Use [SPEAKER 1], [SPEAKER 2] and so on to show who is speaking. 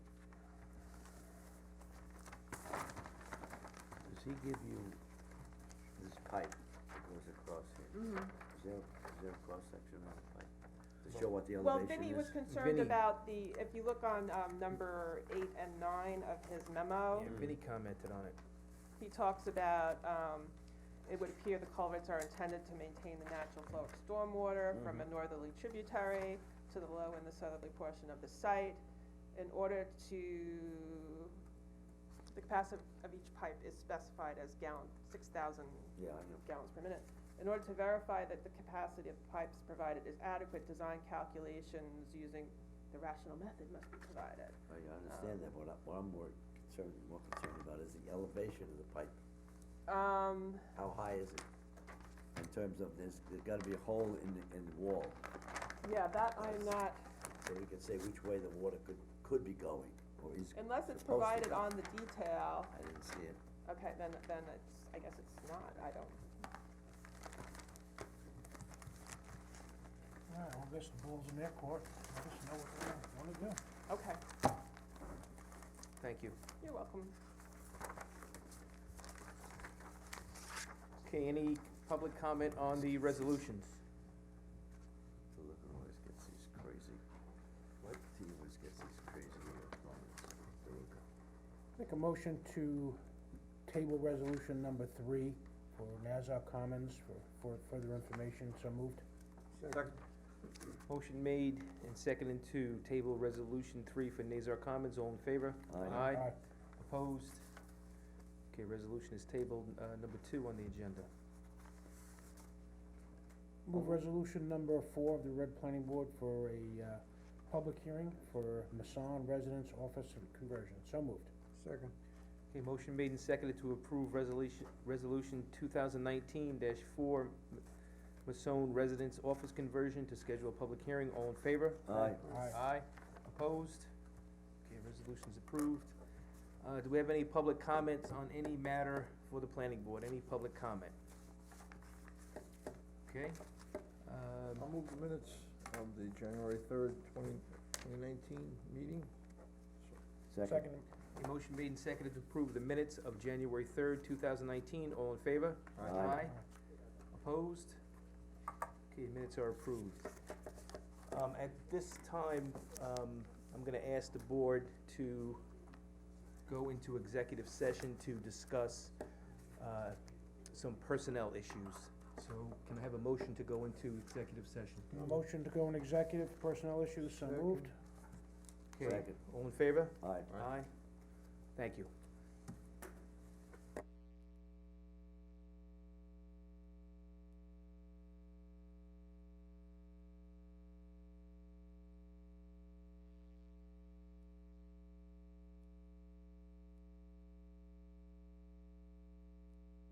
[SPEAKER 1] we give you this pipe that goes across
[SPEAKER 2] Hmm?
[SPEAKER 1] here, is there, is there a cross section on the pipe to show what the elevation is?
[SPEAKER 2] Well, Vinny was concerned
[SPEAKER 3] Vinny.
[SPEAKER 2] about the, if you look on, um, number eight and nine of his memo,
[SPEAKER 3] Yeah, Vinnie commented on it.
[SPEAKER 2] he talks about, um, it would appear the culverts are intended to maintain the natural flow of stormwater from
[SPEAKER 1] Mm-hmm.
[SPEAKER 2] a northerly tributary to the low and the southerly portion of the site in order to, the capacity of each pipe is specified as gallon, six thousand
[SPEAKER 1] Yeah, I know.
[SPEAKER 2] gallons per minute. In order to verify that the capacity of the pipes provided is adequate, design calculations using the rational method must be provided.
[SPEAKER 1] I I understand that, what I, what I'm more concerned, more concerned about is the elevation of the pipe,
[SPEAKER 2] Um,
[SPEAKER 1] how high is it? In terms of, there's, there's gotta be a hole in the, in the wall,
[SPEAKER 2] yeah, that I'm
[SPEAKER 1] Yes.
[SPEAKER 2] not,
[SPEAKER 1] so we can say which way the water could, could be going, or is.
[SPEAKER 2] unless it's
[SPEAKER 1] supposed to
[SPEAKER 2] provided
[SPEAKER 1] go.
[SPEAKER 2] on the detail,
[SPEAKER 1] I didn't see it.
[SPEAKER 2] okay, then, then it's, I guess it's not, I don't.
[SPEAKER 4] All right, well, I guess the ball's in their court, let us know what they wanna do.
[SPEAKER 2] Okay,
[SPEAKER 3] Thank you.
[SPEAKER 2] you're welcome.
[SPEAKER 3] Okay, any public comment on the resolutions?
[SPEAKER 1] The liquor always gets these crazy. What? He always gets these crazy uh, comments. The liquor.
[SPEAKER 4] Make a motion to table resolution number three for Nassau Commons for, for further information, so moved.
[SPEAKER 3] Motion made and seconded to table resolution three for Nazar Commons, all in favor?
[SPEAKER 1] Aye.
[SPEAKER 4] Aye.
[SPEAKER 3] Opposed? Okay, resolution is tabled, uh, number two on the agenda.
[SPEAKER 4] Move resolution number four of the Red Planning Board for a, uh, public hearing for Masson Residence Office Conversion, so moved.
[SPEAKER 5] Second.
[SPEAKER 3] Okay, motion made and seconded to approve resolution, resolution two thousand nineteen dash four, Masson Residence Office Conversion to schedule a public hearing, all in favor?
[SPEAKER 1] Aye.
[SPEAKER 4] Aye.
[SPEAKER 3] Opposed? Okay, resolution's approved. Uh, do we have any public comments on any matter for the planning board? Any public comment? Okay,
[SPEAKER 5] I'll
[SPEAKER 3] um,
[SPEAKER 5] move the minutes of the January third, twenty, twenty nineteen meeting.
[SPEAKER 1] Second.
[SPEAKER 3] a motion made and seconded to approve the minutes of January third, two thousand nineteen. All in favor?
[SPEAKER 1] Aye.
[SPEAKER 3] Opposed? Okay, minutes are approved. Um, at this time, um, I'm gonna ask the board to go into executive session to discuss, uh, some personnel issues. So can I have a motion to go into executive session?
[SPEAKER 4] A Motion to go in executive personnel issues, so
[SPEAKER 5] Second.
[SPEAKER 4] moved.
[SPEAKER 3] Okay,
[SPEAKER 1] Second.
[SPEAKER 3] All in favor?
[SPEAKER 1] Aye.
[SPEAKER 5] Aye.
[SPEAKER 3] Thank you.